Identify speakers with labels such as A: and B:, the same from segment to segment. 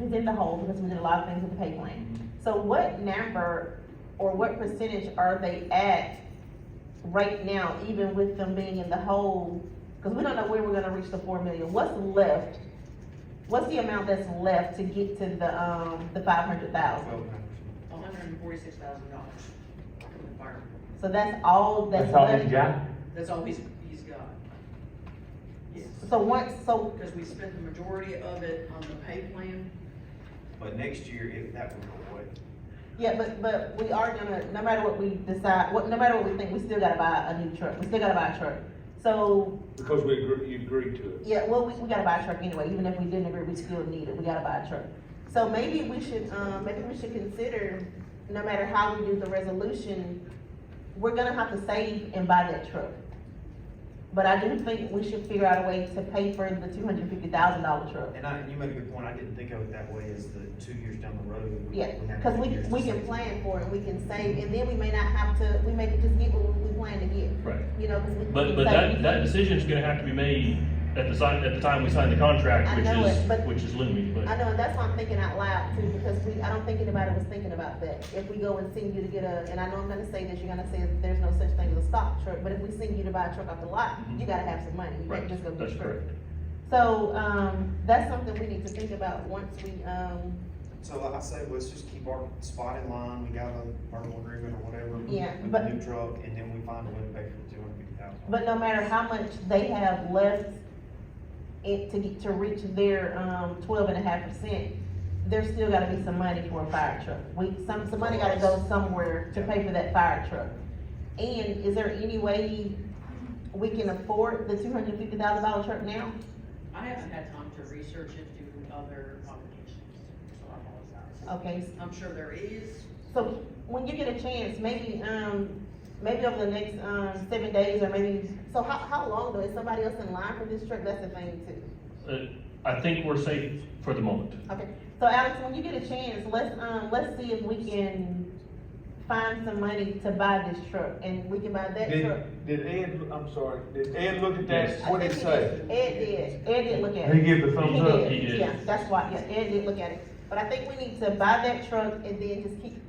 A: is in the hole because we did a lot of things with the pay plan. So what number or what percentage are they at right now, even with them being in the hole? Cause we don't know where we're gonna reach the four million. What's left? What's the amount that's left to get to the, um, the five hundred thousand?
B: hundred and forty-six thousand dollars from the fire.
A: So that's all that's
C: That's all he's
A: left?
C: got?
B: That's all he's, he's got. Yes,
A: So once, so,
B: because we spent the majority of it on the pay plan.
D: But next year, if that would go away.
A: yeah, but, but we are gonna, no matter what we decide, what, no matter what we think, we still gotta buy a new truck. We still gotta buy a truck. So
E: Because we agree, you agreed to it.
A: Yeah, well, we, we gotta buy a truck anyway, even if we didn't agree, we still need it, we gotta buy a truck. So maybe we should, um, maybe we should consider, no matter how we do the resolution, we're gonna have to save and buy that truck. But I do think we should figure out a way to pay for the two hundred fifty thousand dollar truck.
D: And I, and you make a good point, I didn't think of it that way, as the two years down the road. we-
A: Yeah,
D: we have
A: cause we,
D: two years
A: we
D: to
A: can
D: save.
A: plan for it, we can save, and then we may not have to, we may just get what we plan to get,
F: Right.
A: you know, cause we.
F: But, but that, that decision's gonna have to be made at the sign, at the time we sign the contract,
A: I
F: which
A: know it, but-
F: is, which is looming,
A: I
F: but.
A: know, and that's why I'm thinking out loud too, because we, I don't think anybody was thinking about that. If we go and send you to get a, and I know I'm gonna say this, you're gonna say that there's no such thing as a stock truck, but if we send you to buy a truck off the lot, you gotta have some money, you
F: Mm-hmm. Right,
A: can't just go get
F: that's
A: a truck.
F: correct.
A: So, um, that's something we need to think about once we, um,
D: So like I say, let's just keep our spot in line, we got a verbal agreement or whatever.
A: Yeah,
D: With
A: but-
D: the new truck, and then we find a way to pay for the two hundred fifty thousand.
A: but no matter how much they have left it to get, to reach their, um, twelve and a half percent, there's still gotta be some money for a fire truck. We, some, some money gotta go somewhere to pay for that fire truck. And is there any way we can afford the two hundred fifty thousand dollar truck now?
B: I haven't had time to research into other obligations, so I apologize.
A: Okay,
B: I'm sure there is,
A: so when you get a chance, maybe, um, maybe over the next, um, seven days or maybe, so how, how long though? Is somebody else in line for this truck? That's the thing too.
F: Uh, I think we're safe for the moment.
A: Okay, so Alex, when you get a chance, let's, um, let's see if we can find some money to buy this truck, and we can buy that truck.
E: Did, did Ed, I'm sorry, did Ed look at
F: Yes.
E: that, what
A: I
E: did he
A: think
E: say?
A: did. Ed did, Ed did look at
C: He
A: it.
C: gave the
F: thumbs
A: He
C: thumbs
F: up.
C: up.
F: He
A: did,
F: did.
A: yeah, that's why, yeah, Ed did look at it, but I think we need to buy that truck and then just keep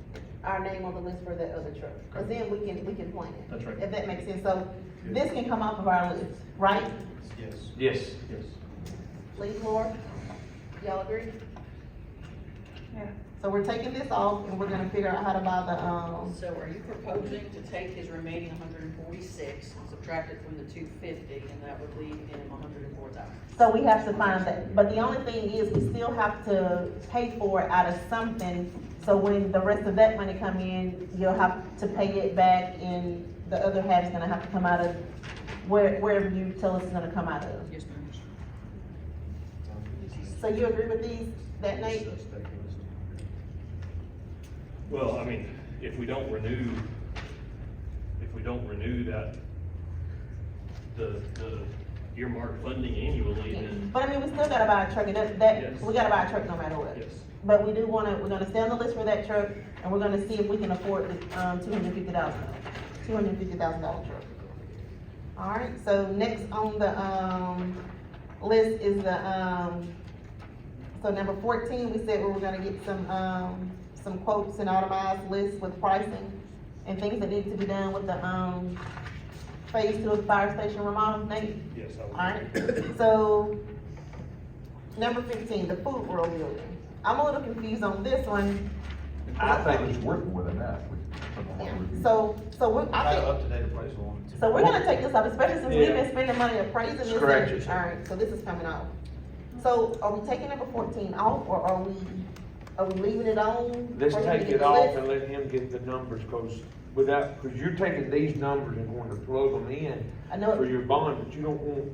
A: our name on the list for that other truck, cause then we can, we can plan it.
F: That's right.
A: If that makes sense, so this can come off of our list, right,
D: Yes.
C: Yes.
F: Yes.
A: Lee, Laura? Y'all agree?
G: Yeah.
A: So we're taking this off, and we're gonna figure out how to buy the, um,
B: So are you proposing to take his remaining hundred and forty-six and subtract it from the two fifty, and that would leave him hundred and four thousand?
A: So we have to find that, but the only thing is, we still have to pay for it out of something, so when the rest of that money come in, you'll have to pay it back, and the other half's gonna have to come out of where, wherever you tell us it's gonna come out of.
B: Yes, ma'am.
A: So you agree with these, that Nate?
F: Well, I mean, if we don't renew, if we don't renew that, the, the earmark funding annually, then
A: But I mean, we still gotta buy a truck, and that, that,
F: Yes.
A: we gotta buy a truck no matter what.
F: yes.
A: But we do wanna, we're gonna stay on the list for that truck, and we're gonna see if we can afford the, um, two hundred fifty thousand, two hundred fifty thousand dollar truck. Alright, so next on the, um, list is the, um, so number fourteen, we said we were gonna get some, um, some quotes and automized lists with pricing and things that need to be done with the, um, phase two of fire station remodel, Nate?
F: Yes, I would.
A: Alright, so, number fifteen, the food world building. I'm a little confused on this one.
C: I think it's working with enough.
A: Yeah, So, so we,
D: I
A: I
D: got
A: think,
D: up to date appraisal on it. too.
A: so we're gonna take this off, especially since we've been
E: Uh, Yeah.
A: spending money appraising this.
C: Scratch it.
A: Alright, so this is coming off. So are we taking number fourteen off, or are we, are we leaving it on?
E: Let's
A: Or we
E: take
A: get
E: it
A: the
E: off
A: list?
E: and let him get the numbers, cause without, cause you're taking these numbers and going to plug them in
A: I know,
E: for
A: it-
E: your bond, but you don't want,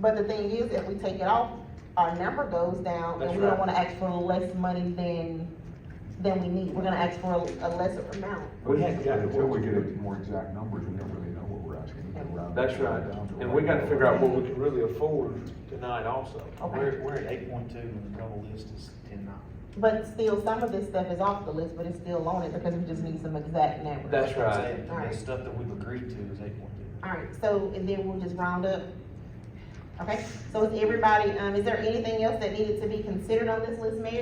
A: but the thing is, if we take it off, our number goes down, and
E: That's
A: we don't
E: right.
A: wanna ask for less money than, than we need. We're gonna ask for a a lesser amount.
E: we hadn't gotten
C: Until we get
E: to.
C: more exact numbers, we don't really know what we're asking. We can round it
E: That's right,
C: down to
E: and
C: what
E: we
C: we
E: gotta
C: know.
E: figure out what we can really afford tonight also.
A: Okay.
D: We're, we're at eight point two, and the total list is ten nine.
A: But still, some of this stuff is off the list, but it's still on it because we just need some exact numbers.
E: That's right.
D: The stuff that we've agreed to is eight point two.
A: Alright, so, and then we'll just round up. Okay, so is everybody, um, is there anything else that needed to be considered on this list, Mayor?